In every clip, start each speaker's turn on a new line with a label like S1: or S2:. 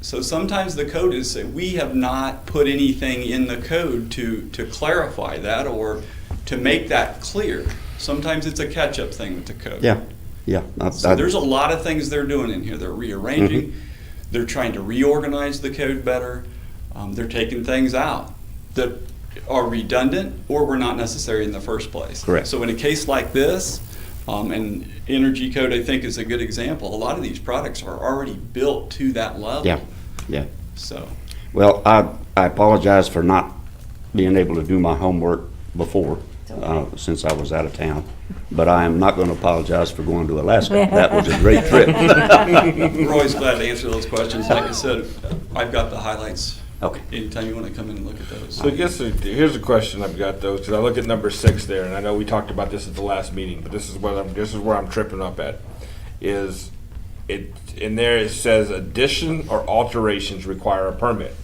S1: So sometimes the code is, say, we have not put anything in the code to, to clarify that or to make that clear. Sometimes it's a catch-up thing with the code.
S2: Yeah, yeah. I-
S1: So
S2: I-
S1: there's a lot of things they're doing in here. They're rearranging.
S2: Mhm.
S1: They're trying to reorganize the code better. Um, they're taking things out that are redundant or were not necessary in the first place.
S2: Correct.
S1: So in a case like this, um, and energy code I think is a good example. A lot of these products are already built to that level.
S2: Yeah, yeah.
S1: So
S2: Well, I, I apologize for not being able to do my homework before, uh, since I was out of town. But I am not gonna apologize for going to Alaska. That was a great trip.
S1: we're always glad to answer those questions. Like I said, I've got the highlights.
S2: Okay.
S1: Anytime you want to come in and look at those.
S3: So I guess uh, here's a question I've got though, because I look at number six there, and I know we talked about this at the last meeting, but this is what I'm this is where I'm tripping up at, is it in there it says addition or alterations require a permit.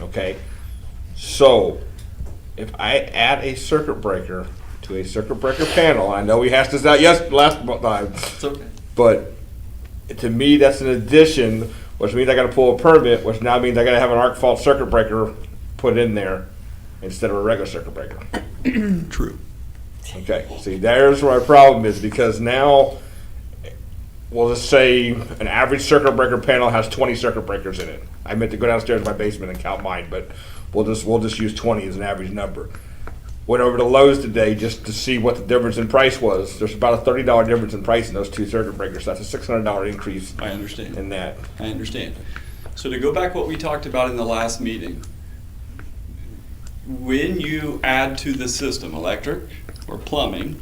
S3: Okay, so if I add a circuit breaker to a circuit breaker panel, I know we hashed this out yes last uh, mo- time,
S1: It's okay.
S3: but to me that's an addition, which means I got to pull a permit, which now means I got to have an arc fault circuit breaker put in there instead of a regular circuit breaker.
S1: True.
S3: Okay, see, there's where my problem is because now, we'll just say an average circuit breaker panel has 20 circuit breakers in it. I meant to go downstairs to my basement and count mine, but we'll just we'll just use 20 as an average number. Went over to Lowe's today just to see what the difference in price was. There's about a $30 difference in price in those two circuit breakers. That's a $600 increase
S1: I understand.
S3: in that.
S1: I understand. So to go back what we talked about in the last meeting, when you add to the system electric or plumbing,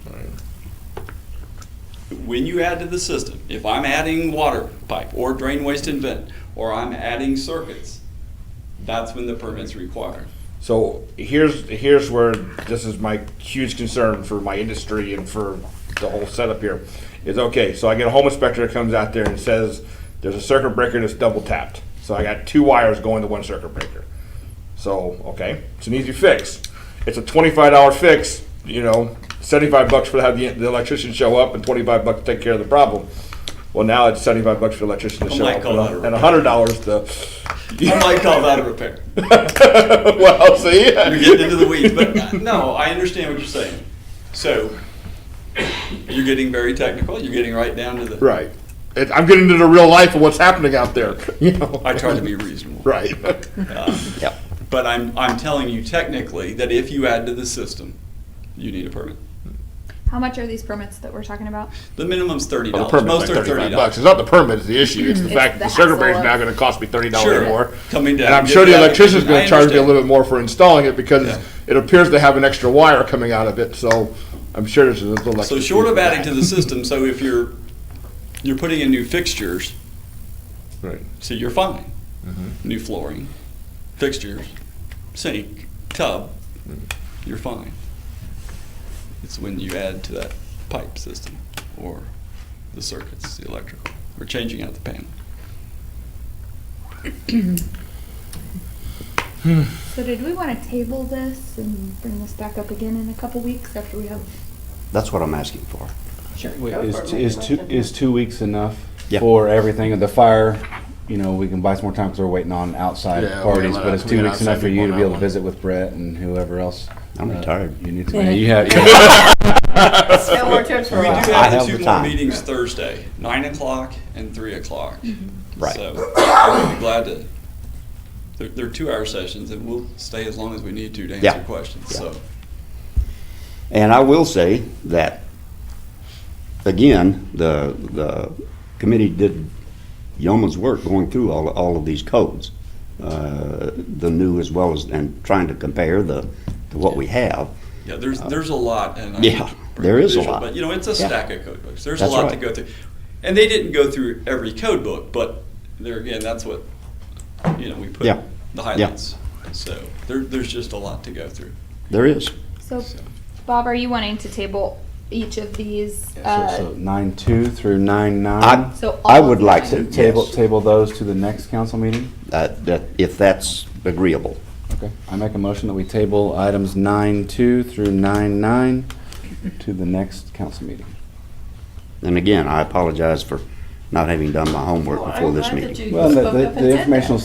S1: when you add to the system, if I'm adding water pipe or drain waste and vent, or I'm adding circuits, that's when the permit's required.
S3: So here's here's where this is my huge concern for my industry and for the whole setup here. Is okay, so I get a home inspector that comes out there and says there's a circuit breaker that's double tapped. So I got two wires going to one circuit breaker. So okay, it's an easy fix. It's a twenty-five dollar fix. You know, seventy-five bucks for to have the, the electrician show up and twenty-five bucks to take care of the problem. Well, now it's seventy-five bucks for the electrician to
S1: I
S3: show
S1: might
S3: up
S1: call that a
S3: and and hundred dollars to.
S1: I might call that a repair.
S3: well, see,
S1: You're getting into the weeds, but uh, no, I understand what you're saying. So, you're getting very technical, you're getting right down to the.
S3: Right. It, I'm getting into the real life of what's happening out there. You know.
S1: I try to be Uh, reasonable.
S3: Right.
S2: Yeah.
S1: But I'm, I'm telling you technically that if you add to the system, you need a permit.
S4: How much are these permits that we're talking about?
S1: The minimum's thirty
S3: Well,
S1: dollars.
S3: the permit's
S1: Most
S3: like
S1: are
S3: thirty-five
S1: thirty dollars.
S3: bucks. It's not the permit that's the issue. It's the
S4: It's
S3: fact that the
S4: the
S3: circuit breaker is
S4: hassle
S3: now
S4: of-
S3: going to cost me thirty
S1: Sure.
S3: dollars more.
S1: Coming down
S3: And I'm
S1: and
S3: sure
S1: get
S3: the
S1: that.
S3: electrician's going
S1: I
S3: to charge me a
S1: understand.
S3: little bit more for installing it because
S1: Yeah.
S3: it appears they have an extra wire coming out of it. So I'm sure there's a little.
S1: So
S3: extra fee
S1: short
S3: for
S1: of
S3: that.
S1: adding to the system, so if you're, you're putting in new fixtures,
S3: Right.
S1: so you're fine. New flooring, fixtures, sink, tub, you're fine. It's when you add to that pipe system or the circuits, the electrical, or changing out the panel.
S4: So did we want to table this and bring this back up again in a couple weeks after we have?
S2: That's what I'm asking for.
S4: Sure.
S5: Wait, Is, is two, is two weeks enough
S2: Yeah.
S5: for everything? The fire, you know, we can buy some more time because we're waiting on outside
S3: Yeah, we're
S5: parties,
S3: gonna-
S5: but is
S3: we're
S5: two
S3: gonna
S5: weeks enough
S3: outside
S5: for you
S3: people
S5: to
S3: on
S5: be able
S3: that one.
S5: to visit with Brett and whoever else?
S2: I'm
S5: uh,
S2: retired.
S5: You need to, man, you have, you
S6: No more trips for a
S1: We
S6: while.
S1: do
S2: I
S1: have
S2: have
S1: the two
S2: the
S1: more
S2: time.
S1: meetings Thursday, nine o'clock and three o'clock.
S2: Right.
S1: So I'll be glad to, they're, they're two-hour sessions and we'll stay as long as we need to to
S2: Yeah.
S1: answer questions,
S2: Yeah.
S1: so.
S2: And I will say that, again, the, the committee did yeoman's work going through all, all of these codes, uh, the new as well as, and trying to compare the, to what we have.
S1: Yeah, there's, there's a lot and. I-
S2: Uh, Yeah, there is a lot.
S1: But, you know, it's a
S2: Yeah.
S1: stack of code books. There's a
S2: That's
S1: lot to
S2: right.
S1: go through. And they didn't go through every code book, but there again, that's what, you know, we put
S2: Yeah.
S1: the highlights. So there, there's just a lot to go through.
S2: There is.
S4: So,
S1: So.
S4: Bob, are you wanting to table each of these? Uh,
S5: have, so nine two through nine
S2: I,
S5: nine.
S4: So all
S2: I would
S4: of
S2: like to,
S4: mine.
S5: Table,
S2: yes,
S5: table those to the next council meeting?
S2: uh, that, if that's agreeable.
S5: Okay. I make a motion that we table items nine two through nine nine to the next council meeting.
S2: And again, I apologize for not having done my homework
S6: Well, Oh, I'm
S2: before this
S6: glad that
S2: meeting.
S6: you
S5: Well, the,
S6: spoke up and
S5: the
S6: said that.
S5: informational